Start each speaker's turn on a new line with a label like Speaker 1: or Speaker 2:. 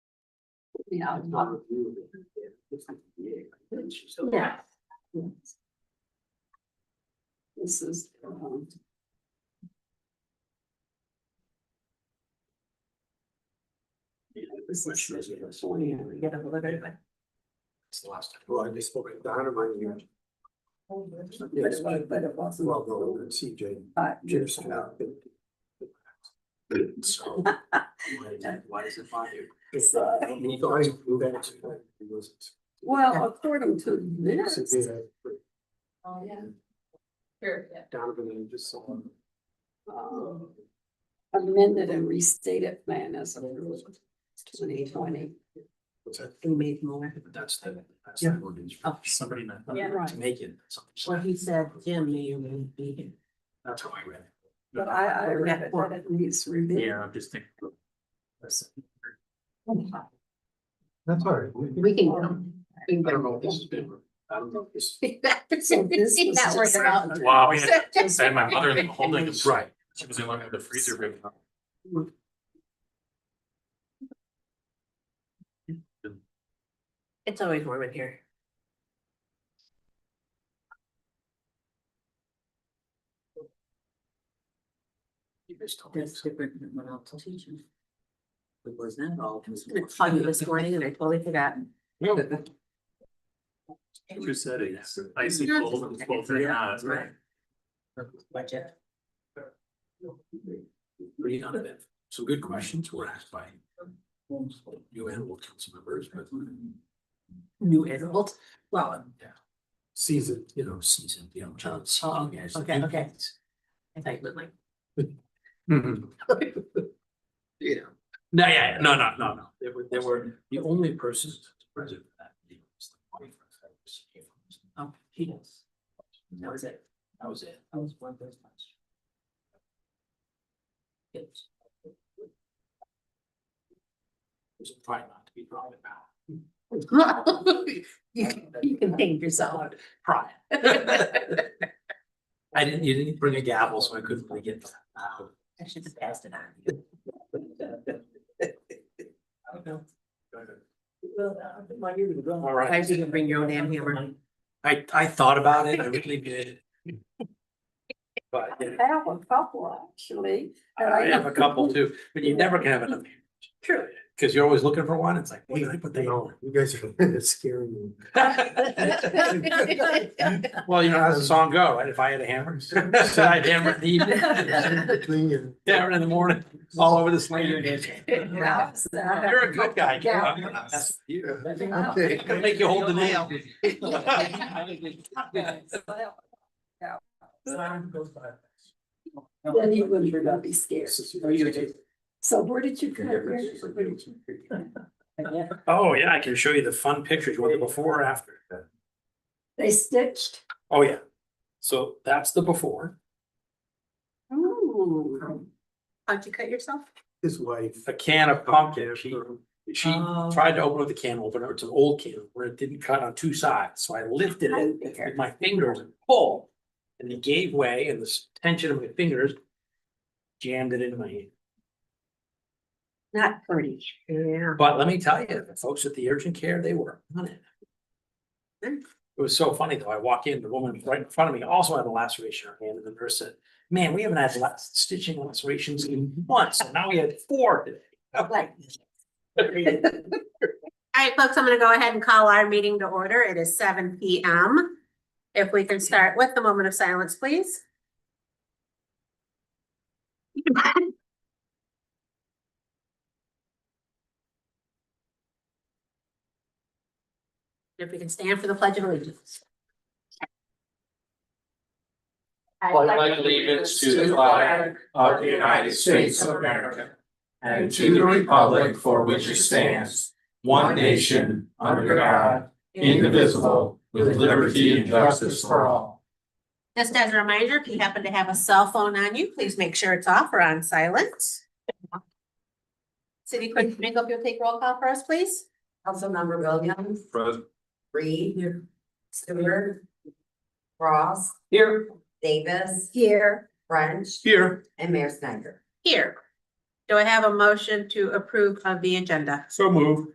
Speaker 1: you know,
Speaker 2: It's
Speaker 1: not-
Speaker 2: not reviewed. It looks like the VA, right? It's just-
Speaker 1: yeah. This is, um,
Speaker 2: Yeah,
Speaker 1: this
Speaker 2: Which
Speaker 1: is.
Speaker 2: is, you know, so yeah, we
Speaker 1: Yeah,
Speaker 2: get-
Speaker 1: literally.
Speaker 2: It's the last time. Well, I just spoke at Donna, my year. Yeah, it's
Speaker 1: But
Speaker 2: like-
Speaker 1: it- but it wasn't.
Speaker 2: Well, no, the CJ.
Speaker 1: But
Speaker 2: Years from now. So. why- Why does it bother you?
Speaker 1: it's,
Speaker 2: So
Speaker 1: uh,
Speaker 2: I moved out to like, it was.
Speaker 1: well, according to this.
Speaker 2: Severe,
Speaker 1: Oh, yeah.
Speaker 3: Sure, yeah.
Speaker 2: Donovan and just someone.
Speaker 1: um, amended and restated plan as of twenty twenty.
Speaker 2: What's that?
Speaker 4: We made more.
Speaker 2: But that's the, that's
Speaker 4: Yeah.
Speaker 2: the ordinance.
Speaker 4: Oh.
Speaker 2: Somebody not
Speaker 3: Yeah.
Speaker 2: to
Speaker 1: Right.
Speaker 2: make it. something.
Speaker 4: Well, he said Jim may or may not be here.
Speaker 2: That's how I read it.
Speaker 1: But I, I read it, that it needs revision.
Speaker 2: I'm just thinking. That's
Speaker 5: That's all right.
Speaker 3: We can. go.
Speaker 1: Um,
Speaker 2: I don't know if this has been, I don't know if this.
Speaker 1: So this
Speaker 3: See
Speaker 1: was
Speaker 3: that
Speaker 1: just-
Speaker 3: working out.
Speaker 6: Wow, we had, I had my mother in the holding, right, she was in line with the freezer room.
Speaker 4: It's always warm in here.
Speaker 2: You just told me.
Speaker 4: That's different than what I'll teach you.
Speaker 2: It was not all.
Speaker 4: It's foggy this morning and I totally forgot.
Speaker 6: Two settings, icy cold and twelve degree highs, right?
Speaker 4: Budget.
Speaker 2: Pretty none of it. Some good questions were asked by you animal council members, but
Speaker 4: New adult. Well, um,
Speaker 2: seasoned, you know, seasoned, you know, John.
Speaker 4: oh,
Speaker 2: Seaton as-
Speaker 4: okay, okay. I thought you meant like.
Speaker 6: Mhm.
Speaker 2: You know,
Speaker 6: No, yeah, yeah, no, no, no,
Speaker 2: no,
Speaker 6: no.
Speaker 2: no, they were, they were the only person present at that. meeting was the wife of Cyrus Abrams.
Speaker 4: Oh, he does.
Speaker 2: That was it. That was it. That was one of those times.
Speaker 4: Good.
Speaker 2: There's a pride not to be proud about.
Speaker 1: You can- you can thank yourself.
Speaker 2: Pride. I didn't, you didn't bring a gavel, so I couldn't really get that. loud.
Speaker 4: I should have passed it on.
Speaker 2: I don't know. Go ahead.
Speaker 4: All
Speaker 2: All right.
Speaker 4: I didn't bring your own damn hammer.
Speaker 2: I, I thought about it, I really did. But
Speaker 1: I
Speaker 2: yeah,
Speaker 1: have a couple, actually. and
Speaker 2: I have a couple too, but you never can have enough. True. Because you're always looking for one, it's like, wait, I put that on.
Speaker 5: You guys are scaring me.
Speaker 2: Well, you know, how's the song go, right? If I had a hammer, so I'd hammer it in the evening,
Speaker 5: Between and-
Speaker 2: hammer it in the morning, all over the slate. You're
Speaker 1: Yeah, so I have-
Speaker 2: a good guy. Ken.
Speaker 1: Yeah.
Speaker 2: I'm gonna mess with you.
Speaker 5: Okay.
Speaker 2: I'm gonna make you hold the nail.
Speaker 1: Then you would you're gonna be scared. So where did you? come- where did you- where did you-
Speaker 2: Oh,
Speaker 4: Yeah.
Speaker 2: yeah, I can show you the fun pictures, what the before or after.
Speaker 1: They stitched?
Speaker 2: Oh, yeah. So that's the before.
Speaker 1: Ooh.
Speaker 4: How'd you cut yourself?
Speaker 5: His wife.
Speaker 2: A can of pumpkin. She, she
Speaker 4: Oh.
Speaker 2: tried to open up the can opener. It's an old can where it didn't cut on two sides. So I lifted it with my fingers and pulled. And it gave way and this tension of my fingers jammed it into my hand.
Speaker 1: Not pretty.
Speaker 4: Yeah.
Speaker 2: But let me tell you, the folks at the urgent care, they were on it. It was so funny though. I walk in, the woman right in front of me also had a laceration on her hand, and the nurse said, man, we haven't had la- stitching lacerations in months, and now we had four today.
Speaker 4: Like,
Speaker 2: I mean,
Speaker 3: All right, folks, I'm gonna go ahead and call our meeting to order. It is seven P M. If we can start with the moment of silence, please. If we can stand for the pledge of allegiance. I
Speaker 6: pledge allegiance to the flag
Speaker 7: of the United States of America and to the republic for which it stands, one nation, under God, indivisible, with liberty and justice for all.
Speaker 3: Just as a reminder, if you happen to have a cell phone on you, please make sure it's off or on silent. City clerk, Domingo, if you'll take roll call for us, please.
Speaker 4: Councilmember Williams,
Speaker 7: Present.
Speaker 4: Reed. Stewart. Ross.
Speaker 2: Here,
Speaker 4: Davis.
Speaker 3: Here.
Speaker 4: French.
Speaker 2: here,
Speaker 4: And Mayor Snyder.
Speaker 3: Here. Do I have a motion to approve of the agenda?
Speaker 2: so move.